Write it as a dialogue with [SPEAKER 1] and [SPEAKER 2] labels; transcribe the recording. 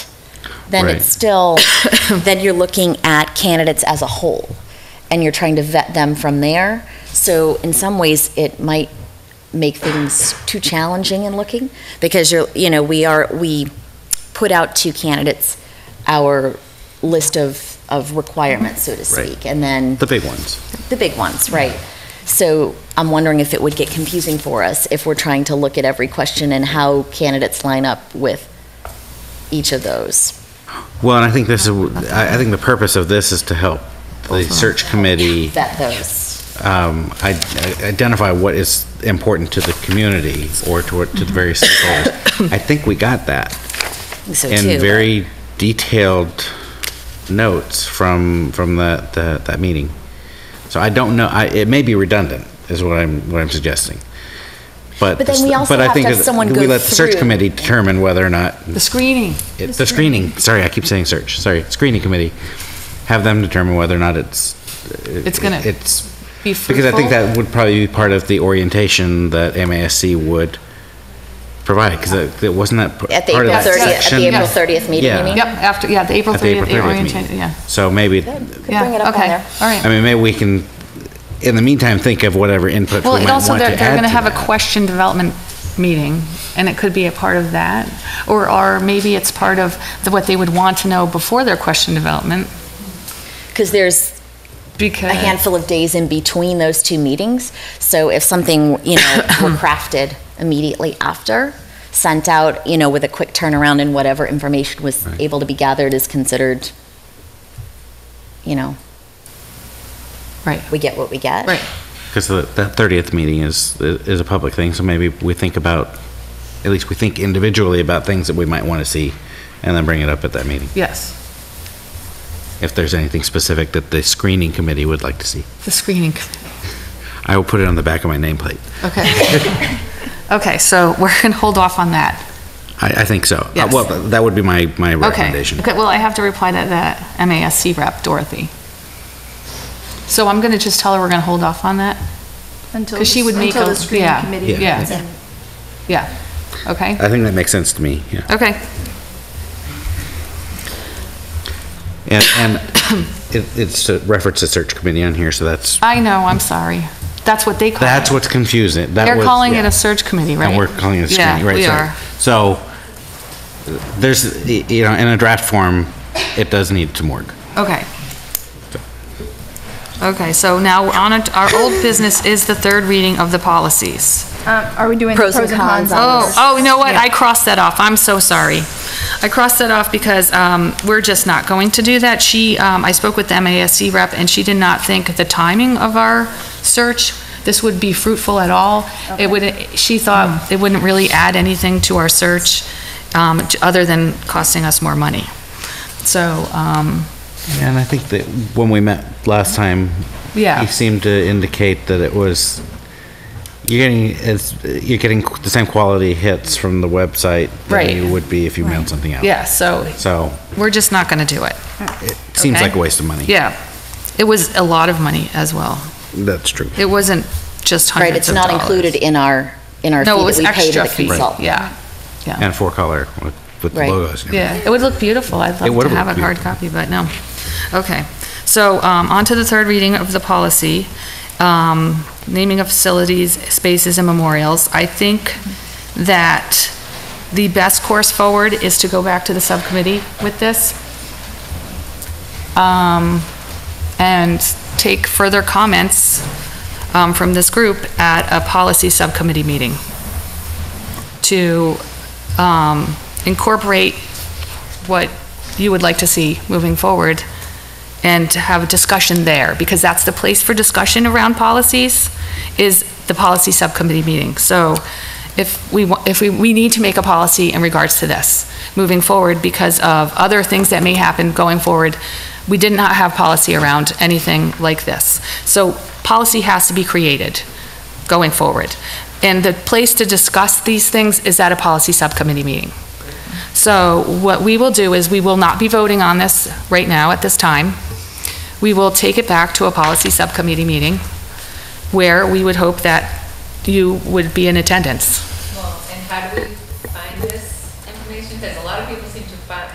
[SPEAKER 1] then
[SPEAKER 2] Right.
[SPEAKER 1] it's still, then you're looking at candidates as a whole, and you're trying to vet them from there. So in some ways, it might make things too challenging in looking, because you're, you know, we are, we put out to candidates our list of, of requirements, so to
[SPEAKER 2] Right.
[SPEAKER 1] speak, and then
[SPEAKER 2] The big ones.
[SPEAKER 1] the big ones, right. So I'm wondering if it would get confusing for us if we're trying to look at every question and how candidates line up with each of those.
[SPEAKER 2] Well, and I think this is, I I think the purpose of this is to help the search committee
[SPEAKER 1] Vet those.
[SPEAKER 2] um, i- identify what is important to the community or to to the various
[SPEAKER 1] Mm-hmm.
[SPEAKER 2] stakeholders. I think we got that.
[SPEAKER 1] So too.
[SPEAKER 2] And very detailed notes from, from the, the- that meeting. So I don't know, I, it may be redundant, is what I'm, what I'm suggesting. But,
[SPEAKER 1] But then we also
[SPEAKER 2] but I
[SPEAKER 1] have to
[SPEAKER 2] think
[SPEAKER 1] have
[SPEAKER 2] that
[SPEAKER 1] someone
[SPEAKER 2] We
[SPEAKER 1] go
[SPEAKER 2] let the search
[SPEAKER 1] through.
[SPEAKER 2] committee determine whether or not,
[SPEAKER 3] The screening.
[SPEAKER 2] it- the screening, sorry, I keep saying search, sorry, screening committee, have them determine whether or not it's.
[SPEAKER 3] It's gonna
[SPEAKER 2] It's,
[SPEAKER 3] Be
[SPEAKER 2] because I
[SPEAKER 3] fruitful.
[SPEAKER 2] think that would probably be part of the orientation that MASC would provide, because it, it wasn't that. p-
[SPEAKER 1] At the
[SPEAKER 2] part of
[SPEAKER 1] April
[SPEAKER 2] that
[SPEAKER 1] 30th, at the
[SPEAKER 2] section?
[SPEAKER 1] April 30th meeting, you
[SPEAKER 2] Yeah.
[SPEAKER 1] mean?
[SPEAKER 3] Yep, after, yeah, the April
[SPEAKER 2] At the
[SPEAKER 3] 30th,
[SPEAKER 2] April
[SPEAKER 3] the
[SPEAKER 2] 30th
[SPEAKER 3] orientation,
[SPEAKER 2] meeting.
[SPEAKER 3] yeah.
[SPEAKER 2] So maybe,
[SPEAKER 1] Could
[SPEAKER 3] Yeah,
[SPEAKER 1] bring it up on
[SPEAKER 3] okay,
[SPEAKER 1] there.
[SPEAKER 3] All right.
[SPEAKER 2] I mean, maybe we can, in the meantime, think of whatever input we
[SPEAKER 3] Well,
[SPEAKER 2] might
[SPEAKER 3] it
[SPEAKER 2] want to
[SPEAKER 3] also,
[SPEAKER 2] add
[SPEAKER 3] they're, they're
[SPEAKER 2] to
[SPEAKER 3] gonna have a
[SPEAKER 2] that.
[SPEAKER 3] question development meeting, and it could be a part of that. Or, or maybe it's part of the- what they would want to know before their question development,
[SPEAKER 1] Because there's
[SPEAKER 3] because.
[SPEAKER 1] a handful of days in between those two meetings. So if something, you know, were crafted immediately after, sent out, you know, with a quick turnaround and whatever information was
[SPEAKER 2] Right.
[SPEAKER 1] able to be gathered is considered, you know,
[SPEAKER 3] Right,
[SPEAKER 1] we get what we get.
[SPEAKER 3] right.
[SPEAKER 2] Because the, that 30th meeting is, is a public thing, so maybe we think about, at least we think individually about things that we might want to see, and then bring it up at that meeting,
[SPEAKER 3] Yes,
[SPEAKER 2] if there's anything specific that the screening committee would like to see.
[SPEAKER 3] the screening. committee.
[SPEAKER 2] I will put it on the back of my nameplate.
[SPEAKER 3] Okay. Okay, so we're gonna hold off on that.
[SPEAKER 2] I, I think so. Uh,
[SPEAKER 3] Yes.
[SPEAKER 2] Well, that would be my, my
[SPEAKER 3] Okay.
[SPEAKER 2] recommendation.
[SPEAKER 3] Okay, well, I have to reply to the MASC rep, Dorothy. So I'm gonna just tell her we're gonna hold off on that?
[SPEAKER 4] Until,
[SPEAKER 3] 'Cause she
[SPEAKER 4] the-
[SPEAKER 3] would make
[SPEAKER 4] until
[SPEAKER 3] a-
[SPEAKER 4] the screening
[SPEAKER 3] yeah,
[SPEAKER 4] committee.
[SPEAKER 2] yeah.
[SPEAKER 4] meets
[SPEAKER 3] Yeah.
[SPEAKER 4] and-
[SPEAKER 3] Yeah, okay,
[SPEAKER 2] I think that makes sense to me, yeah.
[SPEAKER 3] okay.
[SPEAKER 2] And, and it, it's a reference to search committee on here, so that's,
[SPEAKER 3] I know, I'm sorry. That's what they call it.
[SPEAKER 2] that's what's confusing. That
[SPEAKER 3] They're
[SPEAKER 2] was-
[SPEAKER 3] calling it
[SPEAKER 2] yeah.
[SPEAKER 3] a search committee, right?
[SPEAKER 2] And we're calling it a screening, right? sorry.
[SPEAKER 3] Yeah,
[SPEAKER 2] So, there's, y- you know, in a draft form, it does need to work.
[SPEAKER 3] we are. Okay. Okay, so now on it- our old business is the third reading of the policies.
[SPEAKER 4] Um, Are we doing the
[SPEAKER 1] Pros and
[SPEAKER 4] pros and cons?
[SPEAKER 1] cons on
[SPEAKER 4] on
[SPEAKER 3] Oh,
[SPEAKER 4] this?
[SPEAKER 3] oh, you know what? I crossed that off. I'm so sorry. I crossed that off because um, we're just not going to do that. She, um, I spoke with the MASC rep, and she did not think the timing of our search, this would be fruitful at all. It would, she
[SPEAKER 1] Mm.
[SPEAKER 3] thought it wouldn't really add anything to our search, um, j- other than costing us more money. So, um,
[SPEAKER 2] And I think that when we met last time,
[SPEAKER 3] Yeah.
[SPEAKER 2] he seemed to indicate that it was, you're getting, it's, you're getting the same quality hits from the website
[SPEAKER 3] Right.
[SPEAKER 2] than you would be if you mailed something out.
[SPEAKER 3] yeah, so
[SPEAKER 2] So,
[SPEAKER 3] we're just not going to do it.
[SPEAKER 2] it seems
[SPEAKER 3] Okay.
[SPEAKER 2] like a waste of money.
[SPEAKER 3] Yeah. It was a lot of money as well.
[SPEAKER 2] That's true.
[SPEAKER 3] It wasn't just
[SPEAKER 1] Right,
[SPEAKER 3] hundreds
[SPEAKER 1] it's
[SPEAKER 3] of
[SPEAKER 1] not
[SPEAKER 3] dollars.
[SPEAKER 1] included in our, in our fee
[SPEAKER 3] No, it was
[SPEAKER 1] that we pay to
[SPEAKER 3] extra
[SPEAKER 1] the
[SPEAKER 3] fee,
[SPEAKER 1] consultant.
[SPEAKER 3] yeah, yeah,
[SPEAKER 2] And four color with with the
[SPEAKER 1] Right.
[SPEAKER 2] logos. and
[SPEAKER 3] yeah. It would look beautiful, I'd
[SPEAKER 2] It
[SPEAKER 3] love
[SPEAKER 2] would
[SPEAKER 3] to have a
[SPEAKER 2] look
[SPEAKER 3] hard copy, but no. Okay, so, um, on to the third reading of the policy, um, naming of facilities, spaces, and memorials. I think that the best course forward is to go back to the subcommittee with this. Um, and take further comments, um, from this group at a policy subcommittee meeting. to um, incorporate what you would like to see moving forward and to have a discussion there, because that's the place for discussion around policies, is the policy subcommittee meeting. So if we, wa- if we, we need to make a policy in regards to this moving forward because of other things that may happen going forward. We did not have policy around anything like this. So policy has to be created going forward. And the place to discuss these things is at a policy subcommittee meeting. So what we will do is we will not be voting on this right now at this time. We will take it back to a policy subcommittee meeting where we would hope that you would be in attendance.
[SPEAKER 5] Well, and how do we find this information? Because a lot of